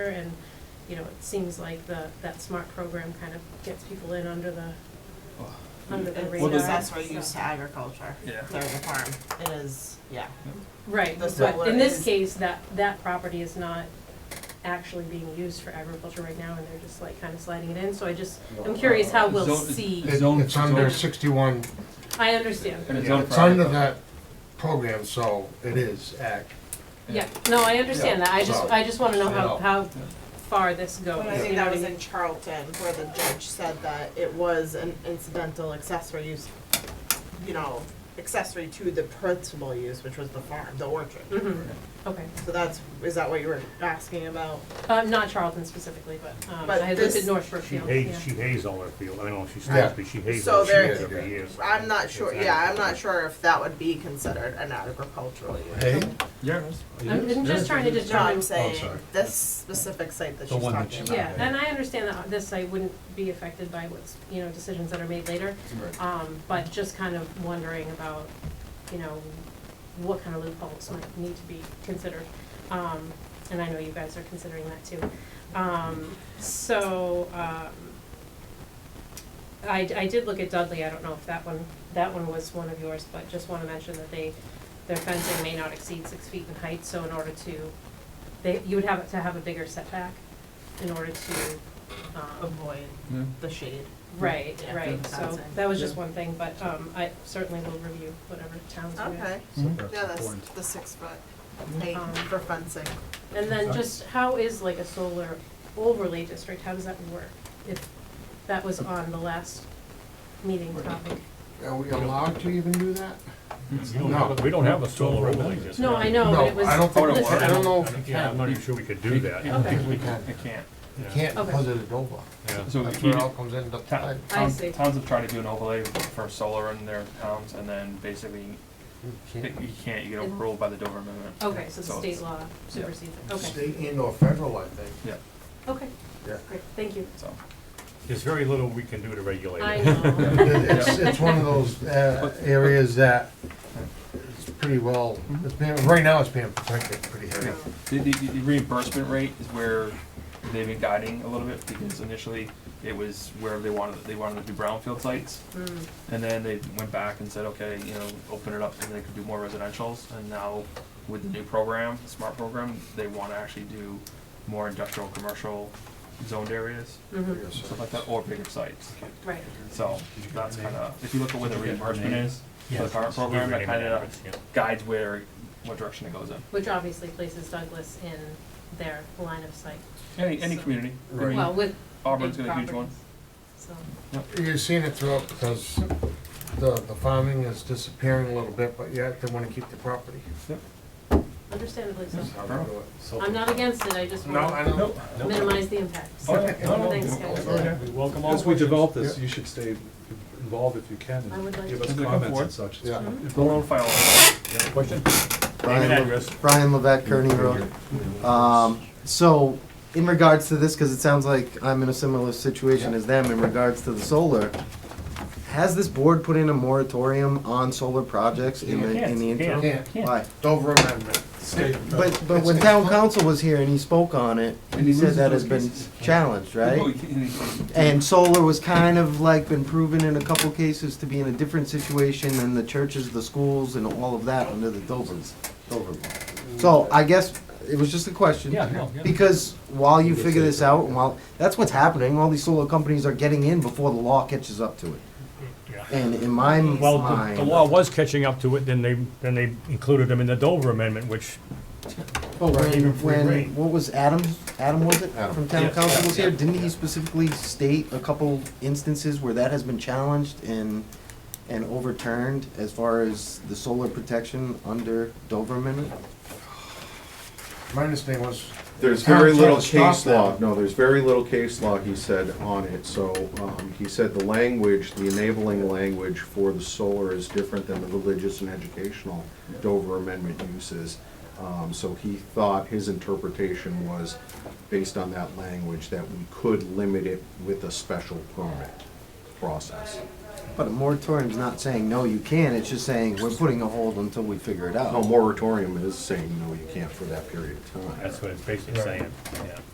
and, you know, it seems like the, that smart program kind of gets people in under the, Oh, under the Well, radar. the- It's accessory so- use to agriculture, Yeah. dairy farm, it is, yeah. Right, The but solar in this is- case, that, that property is not actually being used for agriculture right now, and they're just like kind of sliding it in, so I just, I'm curious how we'll Zone- see. It's It- own- It's under it's own- sixty-one, I understand, And it's yeah, own it's under private. that program, so it is ag. yeah, no, I understand that, I just, Yeah. I just wanna know how, No. how far this goes, But I you think know that what I was mean? in Charlton where the judge said that it was an incidental accessory use, you know, accessory to the principal use, which was the farm, the orchard. Mhm. Okay, So that's, is that what you were asking about? um, not Charlton specifically, but, um, But I had looked at this- North She Brookfield, yeah. hates, she hates all her field, I know she Yeah. stops, but she hates So all she there- does every year. so- I'm not sure, It's yeah, I'm agriculture. not sure if that would be considered an agricultural use. Hey? oh, Yeah. I'm I'm just trying to No, I'm determine, saying sorry. this specific site that she's one that talking she- about. yeah, and I understand that this site wouldn't be affected by what's, you know, decisions that are made later. Um, but just kind of wondering about, you know, what kind of loopholes might need to be considered. Um, and I know you guys are considering that too. Um, so, um, I, I did look at Dudley, I don't know if that one, that one was one of yours, but just wanna mention that they, their fencing may not exceed six feet in height, so in order to, they, you would have to have a bigger setback in order to, um, Avoid Yeah. the shade. Right, Yeah. right, Yeah. so that was just Yeah. one thing, but um I certainly will review whatever towns we have. Okay, yeah, that's the six foot, eight Um, for fencing. And then just how is like a solar overlay district, how does that work? If that was on the last meeting topic. Are we allowed to even do that? You don't have a- We don't have a solar overlay district. No, I know, but it was. No, I don't think, listed. I don't know if you Yeah, I'm not can. even sure we could do that. I don't think Okay. we can, I can't. You can't Okay. because of the Dover. Yeah. So That's you where it do- all comes in. the- town- I- I towns, see. towns have tried to do an overlay for solar in their towns, and then basically, you you can't. can't, you get overruled by the Dover Amendment. Okay, so the So state it's- law supersedes it, okay, State and or federal, I think. Yeah, okay, Yeah. great, thank you. so, There's very little we can do to regulate I it. know, It's, it's one of those uh, areas that it's pretty well, it's being, right now it's being protected pretty heavy. the, the, the reimbursement rate is where they've been guiding a little bit, because initially, it was where they wanted, they wanted to do brownfield sites, Mm, and then they went back and said, okay, you know, open it up, and they could do more residential's, and now with the new program, the smart program, they wanna actually do more industrial, commercial zoned areas, mhm, stuff like that, or bigger sites. right, So that's kind of, if you look at where the reimbursement is for the current We're program, that renting kind it, of yeah. guides where, what direction it goes in. which obviously places Douglas in their line of sight, Any, any So- community, I Right. well, mean, with Auburn's big got a huge one. properties, So, You're seeing it throughout because the, the farming is disappearing a little bit, but yet they wanna keep the property. understandably so. That's how they do it. I'm not against it, I just No, I want don't. to minimize the impact. Oh, yeah. No, no, Thanks, no, guys. no, We welcome all As we questions. develop this, you should stay involved if you can, I would like and give to. us Looking comments forward. and such. It's Yeah. Go on file. Question? Name and Brian, address. Brian Levesque, Kearney Road. Um, so, in regards to this, because it sounds like I'm in a similar situation as them in regards to the solar, has this board put in a moratorium on solar projects in the, in the interim? Can't, Why? Dover Amendment. state- But, but when town council was here and he spoke on it, he said that has been challenged, right? Oh, And solar was kind of like been proven in a couple cases to be in a different situation than the churches, the schools, and all of that under the Dover, Dover law. So I guess it was just a question. Yeah, no, yeah. Because while you figure this out, and while, that's what's happening, all these solar companies are getting in before the law catches up to it. Yeah. And in my mind. Well, the- the law was catching up to it, then they, then they included them in the Dover Amendment, which But Oh, even when, free reign. when, what was Adam, Adam was it, Adam. from town Yeah, council yeah, was here, yeah, didn't yeah. he specifically state a couple instances where that has been challenged and, and overturned as far as the solar protection under Dover amendment? My understanding was. There's Town very tried little to stop case that. law, no, there's very little case law, he said, on it, so, um, he said the language, the enabling language for the solar is different than the religious and educational Dover Amendment uses. Um, so he thought his interpretation was, based on that language, that we could limit it with a special permit process. But a moratorium's not saying, no, you can't, it's just saying, we're putting a hold until we figure it out. No, moratorium is saying, no, you can't for that period of time. That's what it's basically saying, yeah.